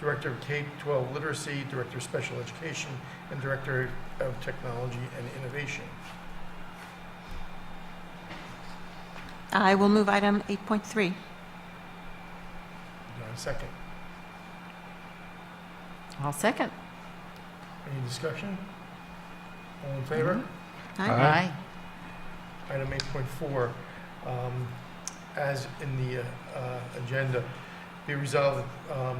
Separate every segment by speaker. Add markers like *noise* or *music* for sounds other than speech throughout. Speaker 1: Director of K-12 Literacy, Director of Special Education, and Director of Technology and Innovation.
Speaker 2: I will move item 8.3.
Speaker 1: Do I have a second?
Speaker 3: I'll second.
Speaker 1: Any discussion? All in favor?
Speaker 2: Aye.
Speaker 3: Aye.
Speaker 1: Item 8.4, um, as in the uh, uh, agenda, be resolved, um,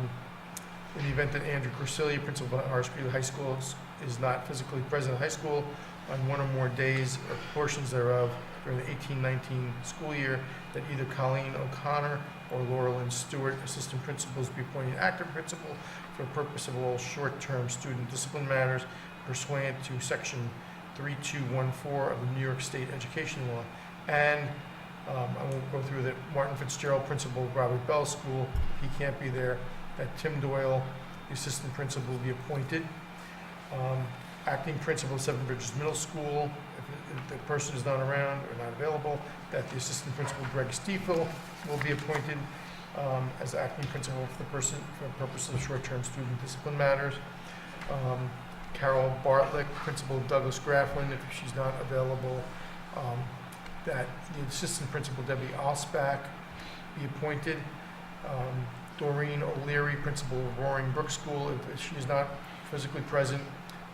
Speaker 1: in the event that Andrew Corsilia, principal of Harrisburg High School, is- is not physically present at high school on one or more days or portions thereof during the 18-19 school year, that either Colleen O'Connor or Laurel Lynn Stewart, assistant principals, be appointed active principal for the purpose of all short-term student discipline matters pursuant to section 3214 of the New York State Education Law. And um, I won't go through that, Martin Fitzgerald, principal of Robert Bell School, he can't be there, that Tim Doyle, the assistant principal, be appointed. Um, Acting principal of Seven Bridges Middle School, if- if the person is not around or not available, that the assistant principal Greg Stiefel will be appointed um, as acting principal for the person, for purposes of short-term student discipline matters. Um, Carol Bartlick, principal of Douglas Grafflin, if she's not available, um, that the assistant principal Debbie Osback be appointed. Um, Doreen O'Leary, principal of Roaring Brook School, if she's not physically present,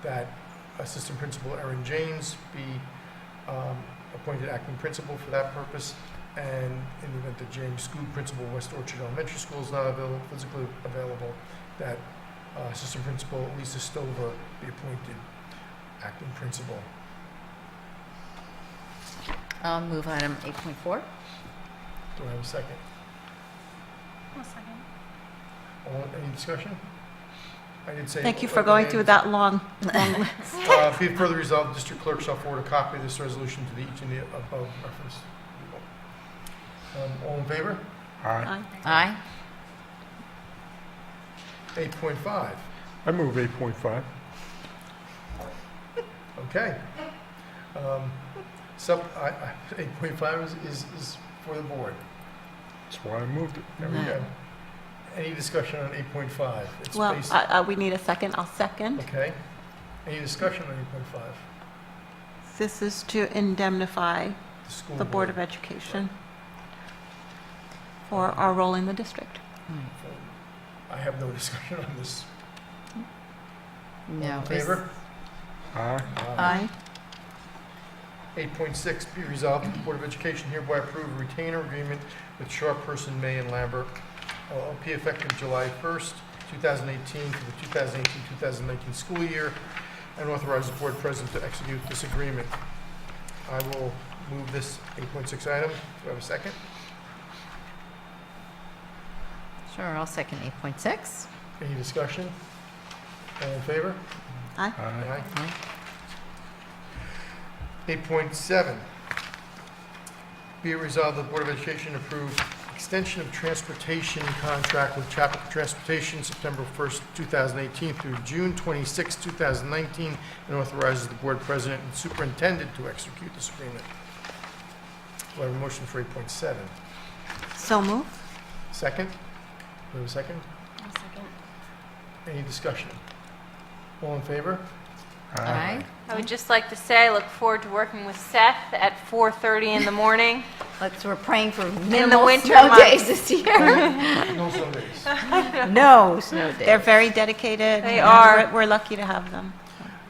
Speaker 1: that assistant principal Erin James be um, appointed acting principal for that purpose. And in the event that James Scoop, principal of West Orchard Elementary School, is not available, physically available, that uh, Assistant Principal Lisa Stover be appointed acting principal.
Speaker 3: I'll move item 8.4.
Speaker 1: Do I have a second? All, any discussion? I did say.
Speaker 2: Thank you for going through that long.
Speaker 1: Uh, Be it further resolved, District Clerk shall forward a copy of this resolution to the each and the above referenced people. Um, All in favor?
Speaker 4: Aye.
Speaker 2: Aye.
Speaker 3: Aye.
Speaker 1: 8.5.
Speaker 4: I move 8.5.
Speaker 1: Okay. Um, So, I, I, 8.5 is, is, is for the board.
Speaker 4: That's why I moved it.
Speaker 1: There we
Speaker 3: Right.
Speaker 1: go. Any discussion on 8.5? It's
Speaker 2: Well,
Speaker 1: based-
Speaker 2: uh, uh, we need a second. I'll second.
Speaker 1: Okay. Any discussion on eight point five?
Speaker 2: This is to indemnify
Speaker 1: The school
Speaker 2: the Board of Education for our role in the district.
Speaker 1: I have no *laughs* discussion on this.
Speaker 3: No.
Speaker 1: All in favor?
Speaker 4: Aye.
Speaker 2: Aye.
Speaker 1: Uh, Eight point six, be resolved that the Board of Education hereby approve a retainer agreement with Sharp Person, May and Lambert LLP effective July first, two thousand eighteen, for the 2018-2019 school year, and authorize the board president to execute this agreement. I will move this eight point six item. Do I have a second?
Speaker 3: Sure, I'll second 8.6.
Speaker 1: Any discussion? All in favor?
Speaker 4: Aye.
Speaker 1: Aye.
Speaker 3: Aye.
Speaker 1: 8.7, be it resolved, the Board of Education approve extension of transportation contract with Chapel Transportation September 1st, 2018 through June 26, 2019, and authorizes the Board President and Superintendent to execute this agreement. Do I have a motion for 8.7?
Speaker 2: So move.
Speaker 1: Second? Do I have a second?
Speaker 5: second.
Speaker 1: Any discussion? All in favor?
Speaker 3: Aye.
Speaker 5: I would just like to say, I look forward to working with Seth at 4:30 in the morning.
Speaker 3: Let's, we're praying for
Speaker 5: the
Speaker 3: minimal
Speaker 5: winter
Speaker 3: snow
Speaker 5: months.
Speaker 3: days this year.
Speaker 1: No Sundays.
Speaker 3: *laughs* No snow
Speaker 2: They're
Speaker 3: days.
Speaker 2: very dedicated.
Speaker 5: They
Speaker 2: and
Speaker 5: are.
Speaker 2: we're- We're lucky to have them.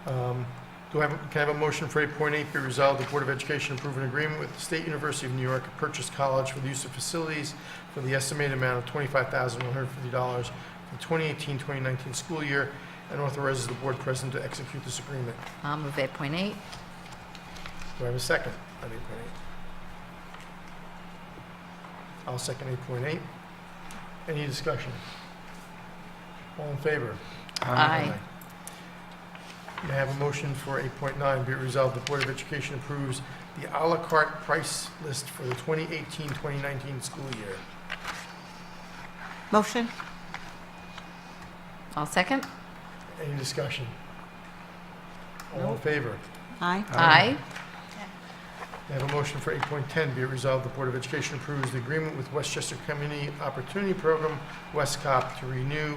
Speaker 1: Um, Do I have, can I have a motion for 8.8 be resolved, the Board of Education approve an agreement with the State University of New York Purchase College for the use of facilities for the estimated amount of $25,150 for the 2018-2019 school year and authorizes the board president to execute this agreement.
Speaker 3: I'll move 8.8.
Speaker 1: Do I have a second on 8.8? I'll second 8.8. Any discussion? All in favor?
Speaker 3: Aye.
Speaker 1: May I have a motion for 8.9, be it resolved, the Board of Education approves the à la carte price list for the 2018-2019 school year.
Speaker 2: Motion?
Speaker 3: I'll second.
Speaker 1: Any discussion? All in favor?
Speaker 2: Aye.
Speaker 3: Aye.
Speaker 1: May I have a motion for 8.10, be it resolved, the Board of Education approves the agreement with Westchester Community Opportunity Program, WestCOP, to renew